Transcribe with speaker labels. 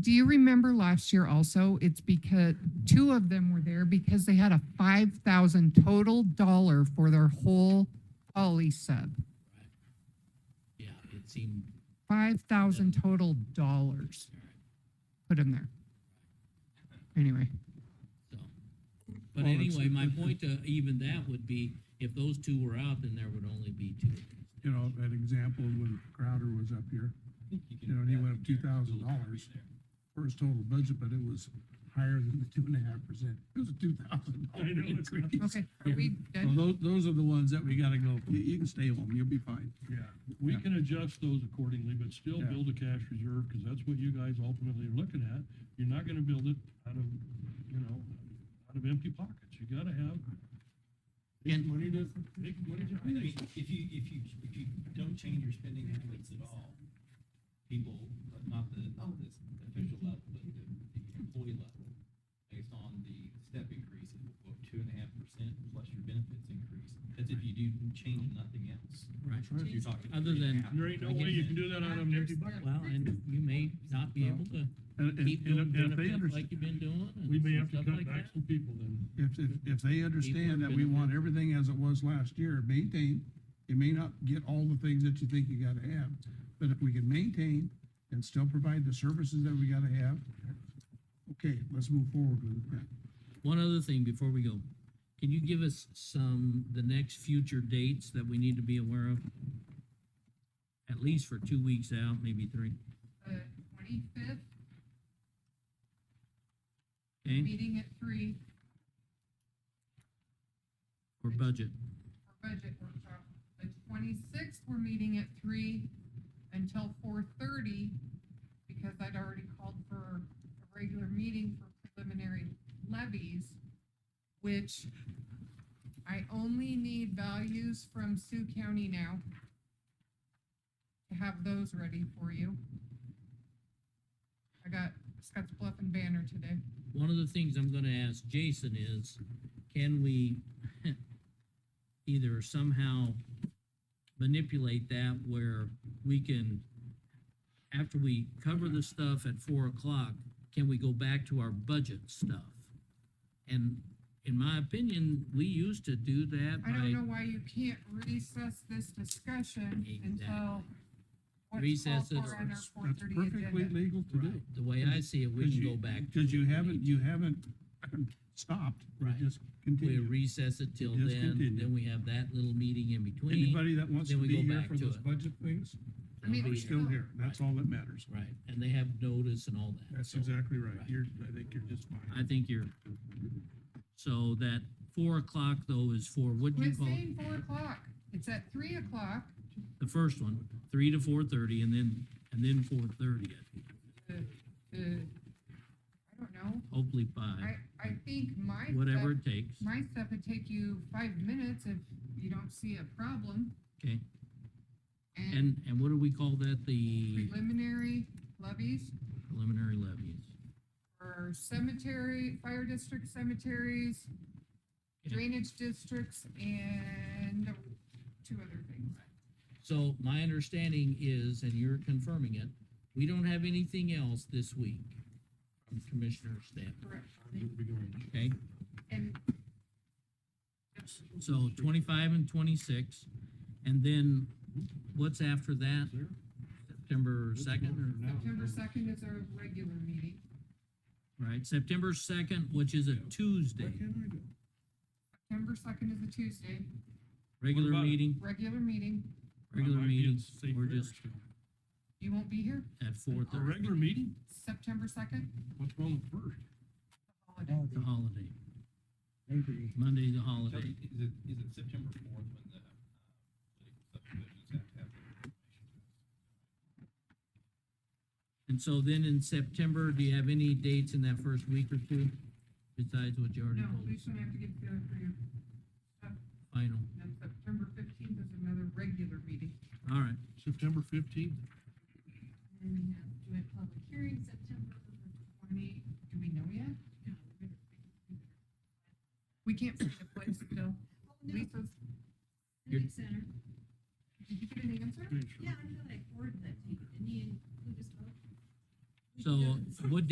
Speaker 1: do you remember last year also? It's because two of them were there because they had a five thousand total dollar for their whole poly sub.
Speaker 2: Yeah,
Speaker 3: Mm-hmm.
Speaker 2: it seemed,
Speaker 1: Five thousand total dollars. Put them there. Anyway,
Speaker 2: so.
Speaker 3: Mm-hmm.
Speaker 2: But anyway, my point to even that would be, if those two were out, then there would only be two.
Speaker 4: You know, that example when Crowder was up here, you know, and he went up two thousand dollars for his total budget, but it was higher than the two and a half percent. It was a two thousand dollar increase.
Speaker 1: okay, are we
Speaker 4: So
Speaker 1: done?
Speaker 4: those, those are the ones that we gotta go, you, you can stay home, you'll be fine.
Speaker 3: Yeah, we
Speaker 4: Yeah.
Speaker 3: can adjust those accordingly, but still
Speaker 4: Yeah.
Speaker 3: build a cash reserve, because that's what you guys ultimately are looking at. You're not gonna build it out of, you know, out of empty pockets. You gotta have big
Speaker 2: And-
Speaker 3: money to, big money to
Speaker 5: I
Speaker 3: pay
Speaker 5: mean, if you, if you, if you don't change your spending habits at all, people, not the, not the official level, but the, the employee level, based on the step increase of what, two and a half percent plus your benefits increase, that's if you do change nothing else.
Speaker 2: Right.
Speaker 5: If You're talking.
Speaker 2: Hmm. Other
Speaker 5: three
Speaker 2: than-
Speaker 5: and a half.
Speaker 3: There ain't no way you can do that out of an empty bucket.
Speaker 2: Well, and you may not be able to
Speaker 4: And, and-
Speaker 2: keep doing
Speaker 4: and if- and if they
Speaker 2: benefits
Speaker 4: understand,
Speaker 2: like you've been doing
Speaker 3: We may
Speaker 2: and
Speaker 3: have to
Speaker 2: stuff
Speaker 3: cut
Speaker 2: like
Speaker 3: back
Speaker 2: that.
Speaker 3: some people then.
Speaker 4: if, if, if they understand that we want everything as it was last year, maintain, you may not get all the things that you think you gotta have, but if we can maintain and still provide the services that we gotta have, okay, let's move forward with that.
Speaker 2: One other thing before we go, can you give us some, the next future dates that we need to be aware of? At least for two weeks out, maybe three,
Speaker 1: Twenty-fifth,
Speaker 2: okay,
Speaker 1: meeting at three
Speaker 2: or budget?
Speaker 1: for budget workshop. The twenty-sixth, we're meeting at three until four thirty because I'd already called for a regular meeting for preliminary levies, which I only need values from Sioux County now to have those ready for you. I got Scott's Bluff and Banner today.
Speaker 2: One of the things I'm gonna ask Jason is, can we either somehow manipulate that where we can, after we cover the stuff at four o'clock, can we go back to our budget stuff? And in my opinion, we used to do that
Speaker 1: I don't know
Speaker 2: by
Speaker 1: why you can't recess this discussion until.
Speaker 2: Exactly.
Speaker 1: what's
Speaker 2: Recess
Speaker 1: called
Speaker 2: it.
Speaker 1: for on our
Speaker 2: That's
Speaker 1: 4:30
Speaker 4: That's perfectly
Speaker 1: agenda.
Speaker 4: legal to do.
Speaker 2: the way I see it, we
Speaker 4: Because
Speaker 2: can
Speaker 4: you-
Speaker 2: go back. to
Speaker 4: Because you
Speaker 2: it.
Speaker 4: haven't, you haven't stopped, you
Speaker 2: Right.
Speaker 4: just
Speaker 2: We
Speaker 4: continue.
Speaker 2: recess it till
Speaker 4: Just
Speaker 2: then,
Speaker 4: continue.
Speaker 2: then we have that little meeting in between.
Speaker 4: Anybody that wants to
Speaker 2: then we go
Speaker 4: be here
Speaker 2: back
Speaker 4: for
Speaker 2: to
Speaker 4: those
Speaker 2: it.
Speaker 4: budget things,
Speaker 2: They'll
Speaker 1: mean,
Speaker 2: be
Speaker 4: we're
Speaker 1: we
Speaker 2: here.
Speaker 4: still here, that's all that matters.
Speaker 2: Right, and they have notice and all that.
Speaker 4: That's
Speaker 2: so
Speaker 4: exactly right,
Speaker 2: Right.
Speaker 4: you're, I think you're just fine.
Speaker 2: I think you're, so that four o'clock though is for, what do you
Speaker 1: Quit
Speaker 2: call it?
Speaker 1: saying four o'clock. It's at three o'clock.
Speaker 2: The first one, three to four thirty and then, and then four thirty,
Speaker 1: uh, uh, I don't know.
Speaker 2: hopefully five,
Speaker 1: I, I think my. stuff-
Speaker 2: whatever it takes,
Speaker 1: My stuff would take you five minutes if you don't see a problem.
Speaker 2: okay?
Speaker 1: And
Speaker 2: And, and what do we call that? The
Speaker 1: preliminary levies
Speaker 2: preliminary levies?
Speaker 1: for cemetery, fire district cemeteries,
Speaker 2: Yeah.
Speaker 1: drainage districts, and two other things.
Speaker 2: So my understanding is, and you're confirming it, we don't have anything else this week from Commissioner Stanton,
Speaker 1: Correct.
Speaker 2: okay?
Speaker 1: And
Speaker 2: So twenty-five and twenty-six, and then what's after that? September second,
Speaker 1: September second is our regular meeting.
Speaker 2: or, right, September second, which is a Tuesday,
Speaker 1: September second is a Tuesday,
Speaker 2: regular
Speaker 3: about it?
Speaker 2: meeting,
Speaker 1: regular meeting.
Speaker 2: regular meeting, we're just
Speaker 1: You won't be here
Speaker 2: at four
Speaker 3: A
Speaker 2: thirty,
Speaker 3: regular meeting?
Speaker 1: September second,
Speaker 3: What's wrong with first?
Speaker 1: holiday.
Speaker 2: the holiday. Monday's a holiday,
Speaker 5: Is it, is it September fourth when the, uh, political subdivisions have to have their information?
Speaker 2: and so then in September, do you have any dates in that first week or two? Besides what you already
Speaker 1: No,
Speaker 2: told
Speaker 1: we
Speaker 2: us,
Speaker 1: shouldn't have to get together for your,
Speaker 2: final,
Speaker 1: and September fifteenth is another regular meeting.
Speaker 2: all right,
Speaker 3: September fifteenth?
Speaker 1: And then we have joint public hearing September twenty, do we know yet? We can't find a place still. Lisa's,
Speaker 2: You're-
Speaker 6: Civic Center,
Speaker 1: did you get an answer?
Speaker 6: yeah, I feel like coordinate, and he included us both.
Speaker 2: So what